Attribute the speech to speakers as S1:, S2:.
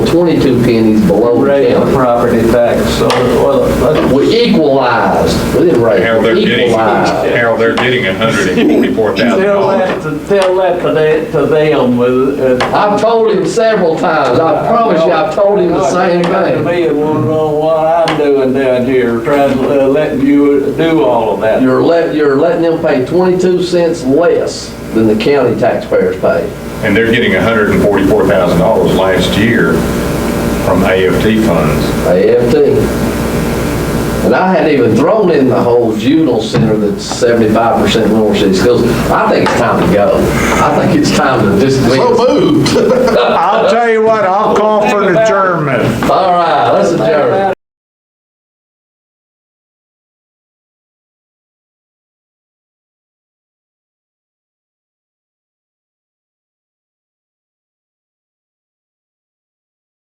S1: 22 pennies below
S2: rate of
S1: county.
S2: property tax, so, well, that's-
S1: We equalized, we didn't raise,
S3: Hell, they're
S1: we
S3: getting,
S1: equalized.
S3: hell, they're getting
S2: tell
S3: $144,000.
S2: that, to- tell that to they- to them with, uh,
S1: I've told him several times, I promise you, I've told him the same
S2: To
S1: thing.
S2: me, it was on what I'm doing down here, trying to uh, let you do all of that.
S1: You're let, you're letting them pay 22 cents less than the county taxpayers pay.
S3: And they're getting $144,000 last year from AFT funds.
S1: AFT. And I hadn't even thrown in the whole juvenile center that's seventy-five percent North City Schools. I think it's time to go. I think it's time to just.
S4: I'll tell you what, I'll call for an adjournment.
S1: All